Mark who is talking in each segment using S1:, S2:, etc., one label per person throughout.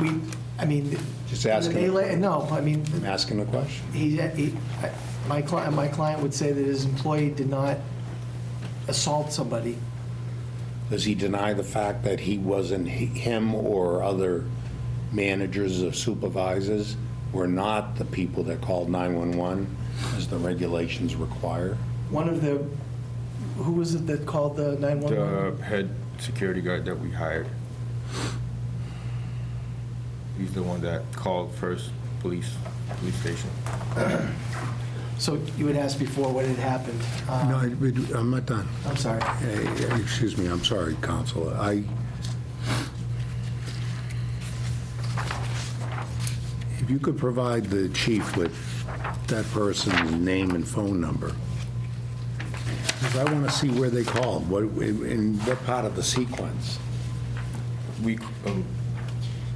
S1: we, I mean.
S2: Just ask him.
S1: the melee- No, I mean,
S2: I'm asking the question.
S1: he, he- my client, my client would say that his employee did not assault somebody.
S2: Does he deny the fact that he wasn't, he- him or other managers or supervisors were not the people that called 911 as the regulations require?
S1: One of the, who was it that called the 911?
S3: The Uh, head security guard that we hired. He's the one that called first police, police station.
S1: So you had asked before what had happened. Uh,
S4: No, I- we- I'm not done.
S1: I'm sorry.
S4: Eh, eh, Excuse me, I'm sorry, Counsel. I, if you could provide the chief with that person's name and phone number, because I want to see where they called, what, in what part of the sequence.
S3: We, um,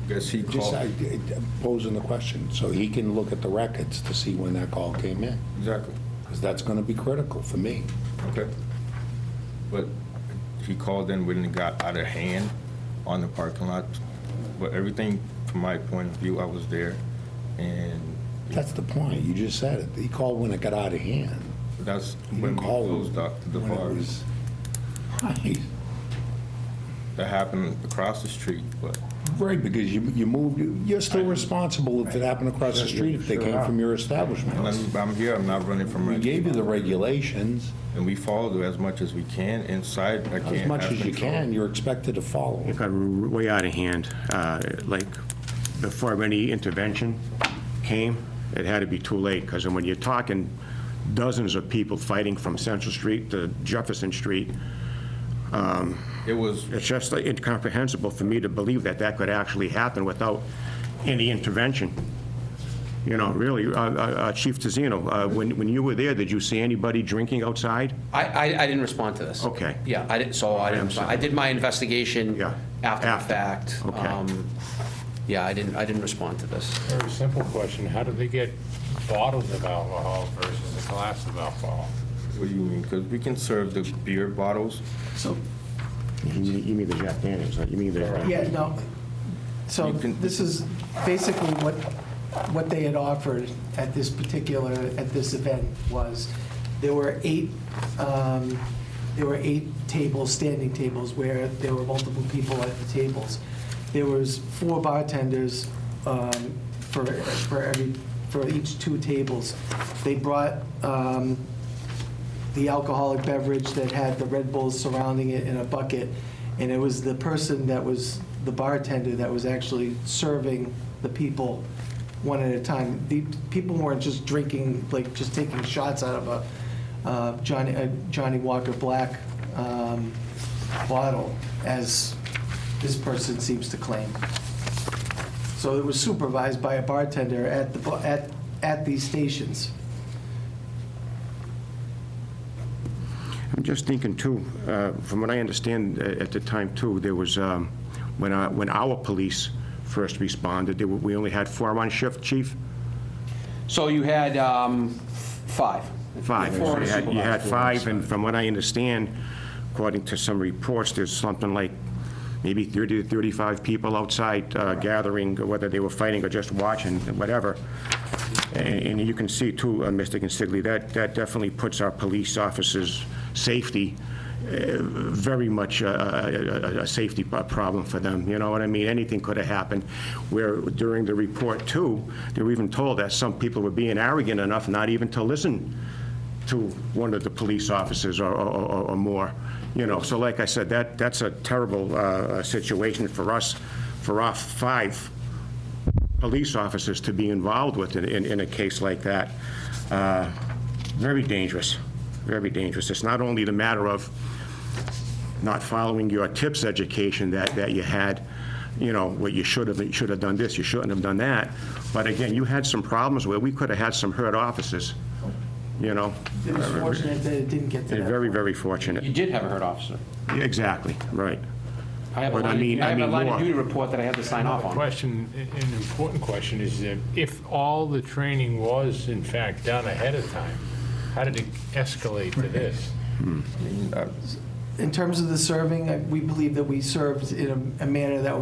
S3: guess he
S2: Just I-
S3: called.
S2: I- posing the question, so he can look at the records to see when that call came in,
S3: Exactly,
S2: because that's going to be critical for me.
S3: okay. But he called in when it got out of hand on the parking lot. But everything, from my point of view, I was there. And
S2: That's the point, you just said it. He called when it got out of hand.
S3: that's
S2: He
S3: when
S2: didn't
S3: we
S2: call
S3: closed up the
S2: when it
S3: bars.
S2: was- Right.
S3: That happened across the street, but
S2: Right, because you, you moved, you're still responsible if it happened across the street, if they came from your establishment.
S3: I'm I'm here, I'm not running from.
S2: We
S3: it.
S2: gave you the regulations,
S3: And we follow it as much as we can inside. I can't
S2: as much
S3: have
S2: as you
S3: control.
S2: can, you're expected to follow.
S5: It got r- way out of hand. Uh, Like, before any intervention came, it had to be too late, because when you're talking dozens of people fighting from Central Street to Jefferson Street,
S3: It was,
S5: it's just like, incomprehensible for me to believe that that could actually happen without any intervention. You know, really, Uh, uh, uh, Chief Tizino, uh, when when you were there, did you see anybody drinking outside?
S6: I, I, I didn't respond to this.
S5: Okay.
S6: Yeah, I didn't, so I didn't, respond. I did my investigation.
S5: Yeah.
S6: After the
S5: After.
S6: fact.
S5: Okay.
S6: Um, Yeah, I didn't, I didn't respond to this.
S7: Very simple question, how do they get bottles of alcohol versus a glass of alcohol?
S3: what do you mean? Because we can serve the beer bottles.
S1: So,
S5: You mean- you mean the Jack Daniels, right? you mean the...
S1: yeah, no. So
S3: You can-
S1: this is basically what, what they had offered at this particular, at this event was, there were eight, um, there were eight tables, standing tables, where there were multiple people at the tables. There was four bartenders um, for, for every, for each two tables. They brought um, the alcoholic beverage that had the Red Bulls surrounding it in a bucket, and it was the person that was the bartender that was actually serving the people one at a time. The people weren't just drinking, like just taking shots out of a uh, Johnny a Johnny Walker Black um, bottle, as this person seems to claim. So it was supervised by a bartender at the bu- at at these stations.
S5: I'm just thinking too, uh, from what I understand uh, at the time too, there was, um, when our, when our police first responded, there were, we only had four on shift, chief?
S6: So you had um, five.
S5: Five.
S6: Four
S5: So
S6: on
S5: You had- you had
S6: supervisor.
S5: five, and from what I understand, according to some reports, there's something like maybe 30 to 35 people outside uh, gathering, whether they were fighting or just watching, whatever. And and you can see too, uh, Mr. Consigli, that, that definitely puts our police officers' safety uh, very much a, a- a, a safety p- problem for them, you know what I mean? Anything could have happened, where during the report too, they were even told that some people were being arrogant enough not even to listen to one of the police officers or, or- or, or more, you know? So like I said, that, that's a terrible uh, uh, situation for us, for our five police officers to be involved with in, in in a case like that. Uh, Very dangerous, very dangerous. It's not only the matter of not following your tips education that, that you had, you know, what you should have, you should have done this, you shouldn't have done that. But again, you had some problems where we could have had some hurt officers, you know?
S1: It was fortunate that it didn't get to that.
S5: They're very, very fortunate.
S6: You did have a hurt officer.
S5: Exactly, right.
S6: I have a
S5: But I
S6: line,
S5: mean-
S6: I
S5: I
S6: have a
S5: mean
S6: line of
S5: more.
S6: duty report that I had to sign off
S7: The
S6: on.
S7: question, an important question is that if all the training was in fact done ahead of time, how did it escalate to this?
S3: I mean, uh, I-
S1: uh, In terms of the serving, I- we believe that we served in a- a manner that